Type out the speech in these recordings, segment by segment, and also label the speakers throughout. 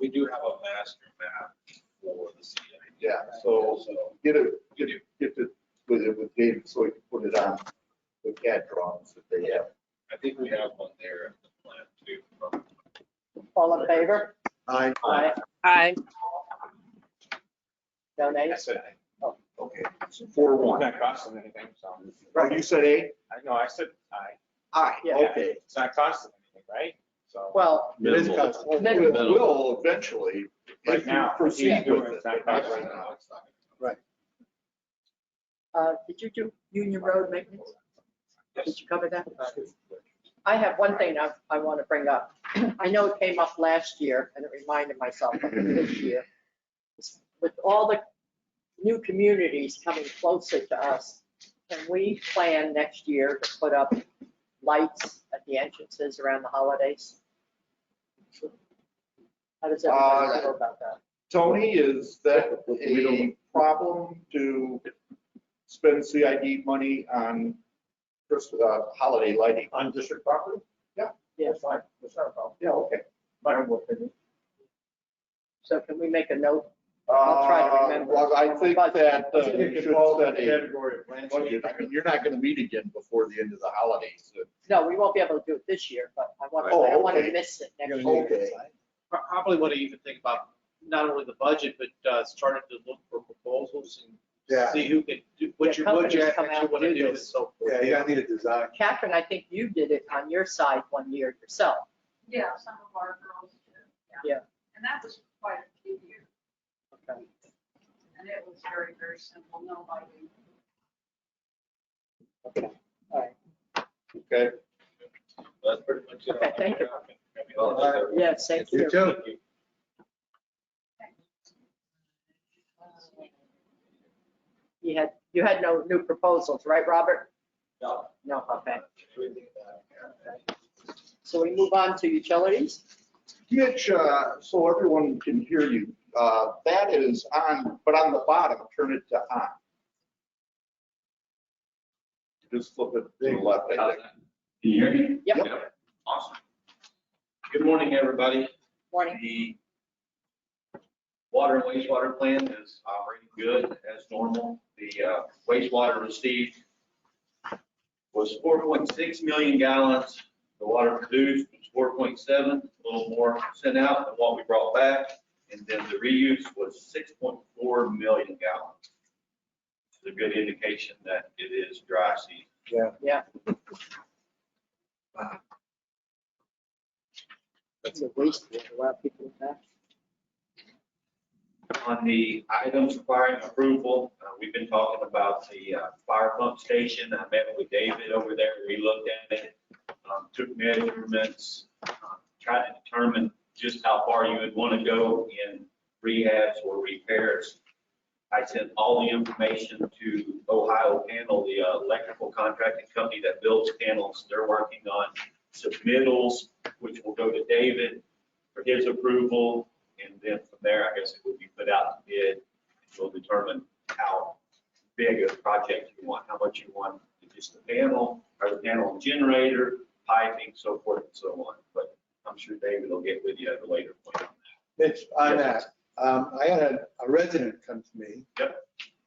Speaker 1: we do have a master map for the CID.
Speaker 2: Yeah, so get it, get it, get it with it with David so he can put it on the CAD drawings that they have.
Speaker 1: I think we have one there at the plant too. from-
Speaker 3: All in favor?
Speaker 2: I,
Speaker 3: Aye.
Speaker 4: Aye.
Speaker 3: No nays?
Speaker 5: said,
Speaker 2: okay, four
Speaker 5: it's
Speaker 2: one.
Speaker 5: not costing anything, so.
Speaker 2: Right, you said A?
Speaker 5: I know, I said aye.
Speaker 2: Aye,
Speaker 3: Yeah.
Speaker 2: okay.
Speaker 5: It's not costing anything, right? So.
Speaker 3: Well,
Speaker 2: It is custom. It will eventually, if
Speaker 5: Right
Speaker 2: you
Speaker 5: now,
Speaker 2: proceed
Speaker 5: he's doing
Speaker 2: with it.
Speaker 5: it's not
Speaker 2: Right
Speaker 5: costing anything.
Speaker 2: now, it's not.
Speaker 3: uh, did you do Union Road maintenance? Did
Speaker 1: Yes.
Speaker 3: you cover that? I have one thing I, I want to bring up. I know it came up last year and it reminded myself of it this year. With all the new communities coming closer to us, can we plan next year to put up lights at the entrances around the holidays? How does everybody feel about that?
Speaker 2: Tony, is that a problem to spend CID money on Christmas, uh, holiday lighting?
Speaker 5: On district property?
Speaker 3: Yes.
Speaker 5: fine. That's not a problem.
Speaker 2: Yeah, okay.
Speaker 3: So can we make a note? I'll try to
Speaker 2: Uh,
Speaker 3: remember.
Speaker 2: well, I think that uh,
Speaker 5: It's
Speaker 2: you
Speaker 5: in
Speaker 2: should
Speaker 5: the
Speaker 2: set a
Speaker 5: Category of land.
Speaker 2: budget. I mean, you're not gonna meet again before the end of the holidays. so-
Speaker 3: No, we won't be able to do it this year, but I want, I
Speaker 2: Oh,
Speaker 3: don't want
Speaker 2: okay.
Speaker 3: to miss it next year.
Speaker 2: Okay.
Speaker 6: pro- probably want to even think about not only the budget, but uh, starting to look for proposals and
Speaker 7: Yeah,
Speaker 6: see who can do, what you, what
Speaker 3: Yeah,
Speaker 6: you
Speaker 3: companies come out
Speaker 6: actually
Speaker 3: and
Speaker 6: want to
Speaker 3: do
Speaker 6: do and
Speaker 3: this.
Speaker 6: so forth.
Speaker 7: yeah, you gotta need a design.
Speaker 3: Uh, Catherine, I think you did it on your side one year yourself.
Speaker 8: Yeah, some of our girls did, yeah.
Speaker 3: Yeah.
Speaker 8: And that was quite a few years, and it was very, very simple, no lighting.
Speaker 2: Okay.
Speaker 1: That's pretty much it.
Speaker 3: Okay, thank you.
Speaker 1: Well, that's-
Speaker 3: Yeah, same
Speaker 7: You
Speaker 3: here.
Speaker 7: too.
Speaker 8: uh,
Speaker 3: You had, you had no new proposals, right, Robert?
Speaker 1: No.
Speaker 3: No, okay.
Speaker 1: Everything that I have.
Speaker 3: So we move on to utilities.
Speaker 2: Mitch, uh, so everyone can hear you, uh, that is on, but on the bottom, turn it to on. Just flip it to the left. I think.
Speaker 1: Can you hear me?
Speaker 3: Yep.
Speaker 1: Awesome. Good morning, everybody.
Speaker 3: Morning.
Speaker 1: The water and wastewater plant is operating good as normal. The uh, wastewater received was 4.6 million gallons. The water produced was 4.7, a little more sent out than what we brought back. And then the reuse was 6.4 million gallons. It's a good indication that it is dry season.
Speaker 3: It's a waste, we have a lot of people with that.
Speaker 1: on the items requiring approval, uh, we've been talking about the uh, fire pump station. I met with David over there. We looked at it, um, took measurements, uh, tried to determine just how far you would want to go in rehabs or repairs. I sent all the information to Ohio Panel, the uh, electrical contracting company that builds panels. They're working on submittals, which will go to David for his approval. And then from there, I guess it would be put out to bid, which will determine how big a project you want, how much you want, if it's the panel, or the panel and generator, piping, so forth and so on. But I'm sure David will get with you at a later point on that.
Speaker 7: Mitch, on that, um, I had a a resident come to me.
Speaker 1: Yep.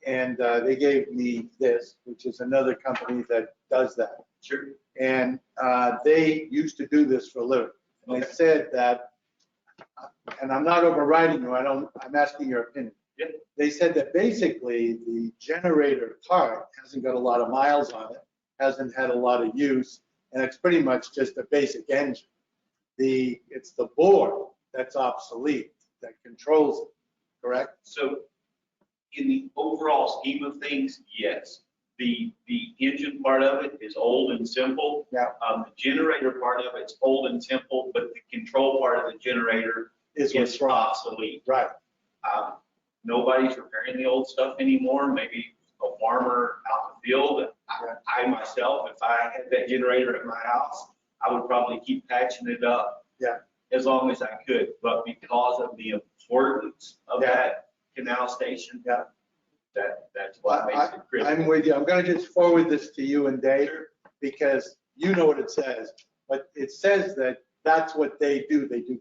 Speaker 7: And, uh, they gave me this, which is another company that does that.
Speaker 1: Sure.
Speaker 7: And uh, they used to do this for a living. And they
Speaker 1: Okay.
Speaker 7: said that, and I'm not overriding you, I don't, I'm asking your opinion.
Speaker 1: Yeah.
Speaker 7: They said that basically the generator part hasn't got a lot of miles on it, hasn't had a lot of use, and it's pretty much just a basic engine. The, it's the board that's obsolete, that controls it, correct?
Speaker 1: So in the overall scheme of things, yes. The, the engine part of it is old and simple.
Speaker 7: Yeah.
Speaker 1: Um, the generator part of it's old and simple, but the control part of the generator
Speaker 7: Is
Speaker 1: is
Speaker 7: what's wrong.
Speaker 1: obsolete.
Speaker 7: Right,
Speaker 1: Um, Nobody's repairing the old stuff anymore, maybe a farmer out in the field. I- I myself, if I had that generator at my house, I would probably keep patching it up.
Speaker 7: Yeah.
Speaker 1: As long as I could, but because of the importance of
Speaker 7: Yeah.
Speaker 1: that canal station.
Speaker 7: Yeah.
Speaker 1: That, that's what makes it critical.
Speaker 7: I'm with you. I'm gonna just forward this to you and Dave. because you know what it says, but it says that that's what they do. They do